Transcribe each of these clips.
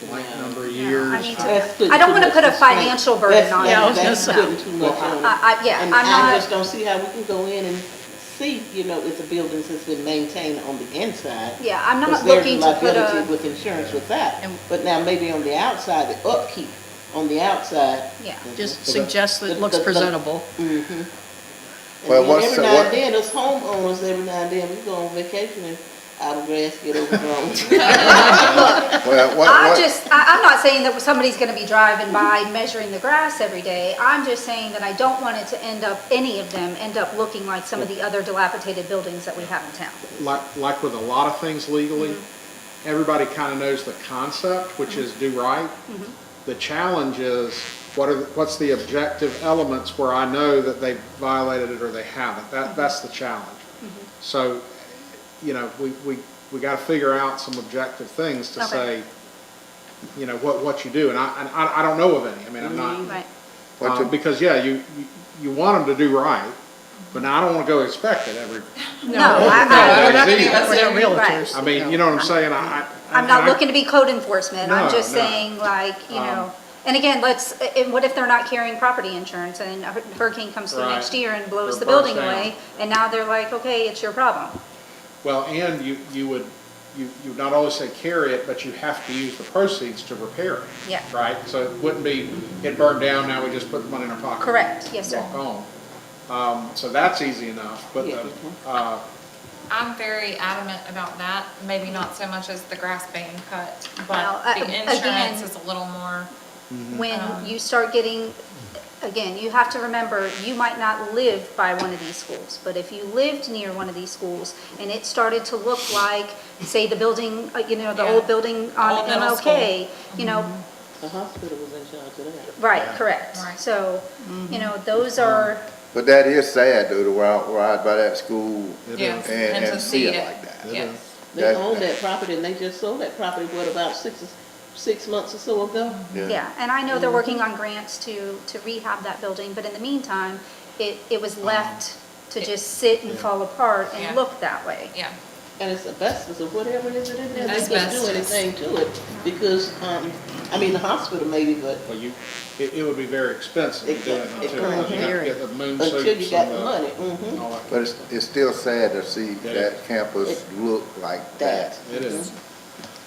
blank number of I years. mean, That's good to- I don't too want to much put a restraint. financial burden on it. Yeah, I was gonna No. say, putting too much on it. I, I, yeah, I'm And I not, just don't see how we can go in and see, you know, if the buildings has been maintained on the inside. yeah, I'm not Because there's looking to put liability a, With insurance with that, And- but now maybe on the outside, the upkeep on the outside. yeah. Just So that- suggest that The- it looks the- the- presentable. Mm-hmm. Mhm. Well, And then what's every the- now what- and then, us homeowners, every now and then, we go on vacation and our grass get overgrown. Well, what, I what, just, I, I'm not saying that somebody's gonna be driving by measuring the grass every day. I'm just saying that I don't want it to end up, any of them, end up looking like some of the other dilapidated buildings that we have in town. Like, like with a lot of things legally, Mm-hmm. everybody kind of knows the concept, which is do right. Mm-hmm. The challenge is, what are, the- what's the objective elements where I know that they violated it or they haven't? Mm-hmm. That, that's the challenge. So, you know, we, we, we got to figure out some objective things to Okay. say, you know, what, what you do. And I, and I, I don't know of any. I mean, I'm not, Right. What Um, to- because, yeah, you, you- you want them to do right, but now I don't want to go expect it every, No, I, I, We're not Right. realtors. Right. I mean, you know what I'm saying? I, I. I'm not looking to be code enforcement, I'm No, just no. saying like, you Um, know, and again, let's, and what if they're not carrying property insurance and a hurricane comes through Right. next year and Or blows the burns building down. away? And now they're like, okay, it's your problem. Well, and you, you would, you, you would not only say carry it, but you have to use the proceeds to repair it. Yeah. Right? So it wouldn't be, it burned down, now we just put the money in our pocket. Correct, yes, sir. Walk on. Um, so that's easy enough, but, Yeah. the, uh, I'm very adamant about that, maybe not so much as the grass being cut, Well, but uh, the again- insurance is a little more, When Um, you start getting, again, you have to remember, you might not live by one of these schools, but if you lived near one of these schools and it started to look like, say, the building, uh, you know, the Yeah. old building on Old middle Mm-hmm. MLK, you know, The hospital was in charge of that. Right, Yeah. correct. Right. Mm-hmm. So, you know, those are, but that is sad though, to ride, ride by that school yes, And- and to and see see it it, like that. It yes. They That- own that property and they just sold that property, what, about six, six months or so ago? yeah, and I know they're working Mm-hmm. on grants to, to rehab that building, but in the meantime, it, it was left to just sit and fall apart Um, Yeah. and look that way. Yeah, And it's asbestos or whatever it is it in there, they couldn't do Asbestos. anything to it because, um, I mean, the hospital maybe, but well, you, it, it would be very expensive to do it It- it until, you have to get the moon suits. until you got and the money, mhm, all that. But it's, it's still sad to see Yeah. that campus look like that. that. It is.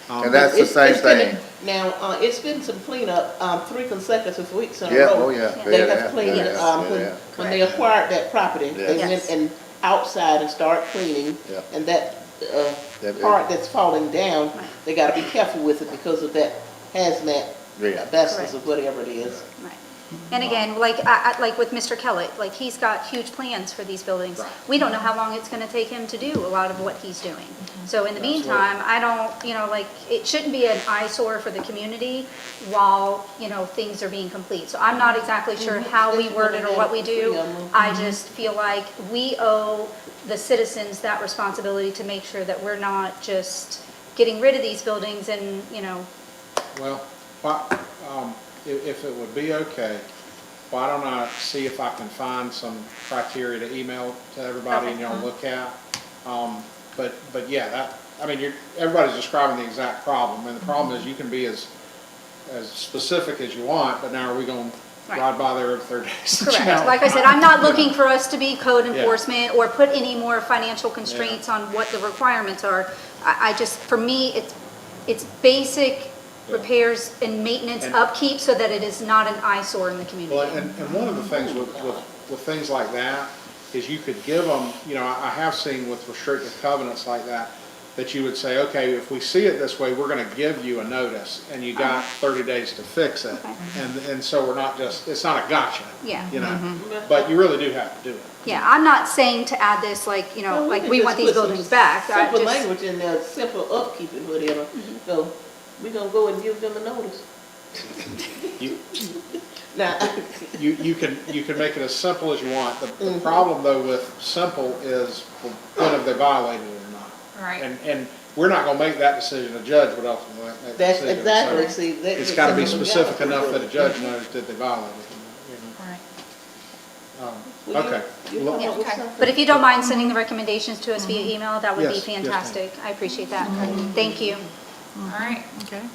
Um, And that's the It's- same it's been- thing. Now, uh, it's been some cleanup, um, three consecutive weeks in a row. Yeah, oh yeah. They yeah, They yeah, have cleaned, yeah, it, um, yeah, when, yeah. when they acquired that property, they Yeah. went Yes. and outside and started cleaning. Yeah. And that, uh, That- part that's falling down, they gotta be careful with it because of that hazmat, Yeah. asbestos or whatever it is. Right. And again, like, I, I, like with Mr. Kellett, like, he's got huge plans for these buildings. Right. We don't know how long it's gonna take him to do a lot of what he's doing. So in the meantime, I don't, you know, like, it shouldn't be an eyesore for the community while, you know, things are being complete. So I'm not exactly sure how we word it or what we do. I just feel like we owe the citizens that responsibility to make sure that we're not just getting rid of these buildings and, you know, Well, why, um, if, if it would be okay, why don't I see if I can find some criteria to email to everybody and uh-huh. y'all look at? Um, but, but yeah, that, I mean, you're, everybody's describing the exact problem, Mm-hmm. and the problem is you can be as, as specific as you want, but now are we gonna Right. ride by there every third day? Correct. Like I said, I'm not looking for us to be code Yeah. enforcement or put any more financial constraints on what the requirements are. I, I just, for me, it's, it's basic Yeah. repairs and maintenance And- upkeep so that it is not an eyesore in the community. Well, and, and one of the things with, with, with things like that is you could give them, you know, I I have seen with restrictive covenants like that, that you would say, okay, if we see it this way, we're gonna give you a notice, and you got thirty days to fix it. Uh-huh. Okay. And, and so we're not just, it's not a gotcha. Yeah. Mm-hmm. You know, but you really do have to do it. Yeah, I'm not saying to add this like, you know, Well, like could we just want these put some buildings back. I Simple just- Mm-hmm. language in there, simple upkeep and whatever, so we gonna go and give them a notice. You- Now, You, you can, you can make it as simple as you want. The, Mm-hmm. the problem though with simple is whether they violated it or not. Right. And, and we're not gonna make that decision, a judge would ultimately make that that's decision. So- exactly, see, that. It's gotta be specific enough that a judge knows that they violated it. right. you Will know. um, you- Okay. you Well, come up with Okay. something? But if you don't mind sending the recommendations to us via email, that would be Yes, yes, Mm-hmm. ma'am. Mm-hmm. fantastic. I appreciate that. Thank you. All right, Okay.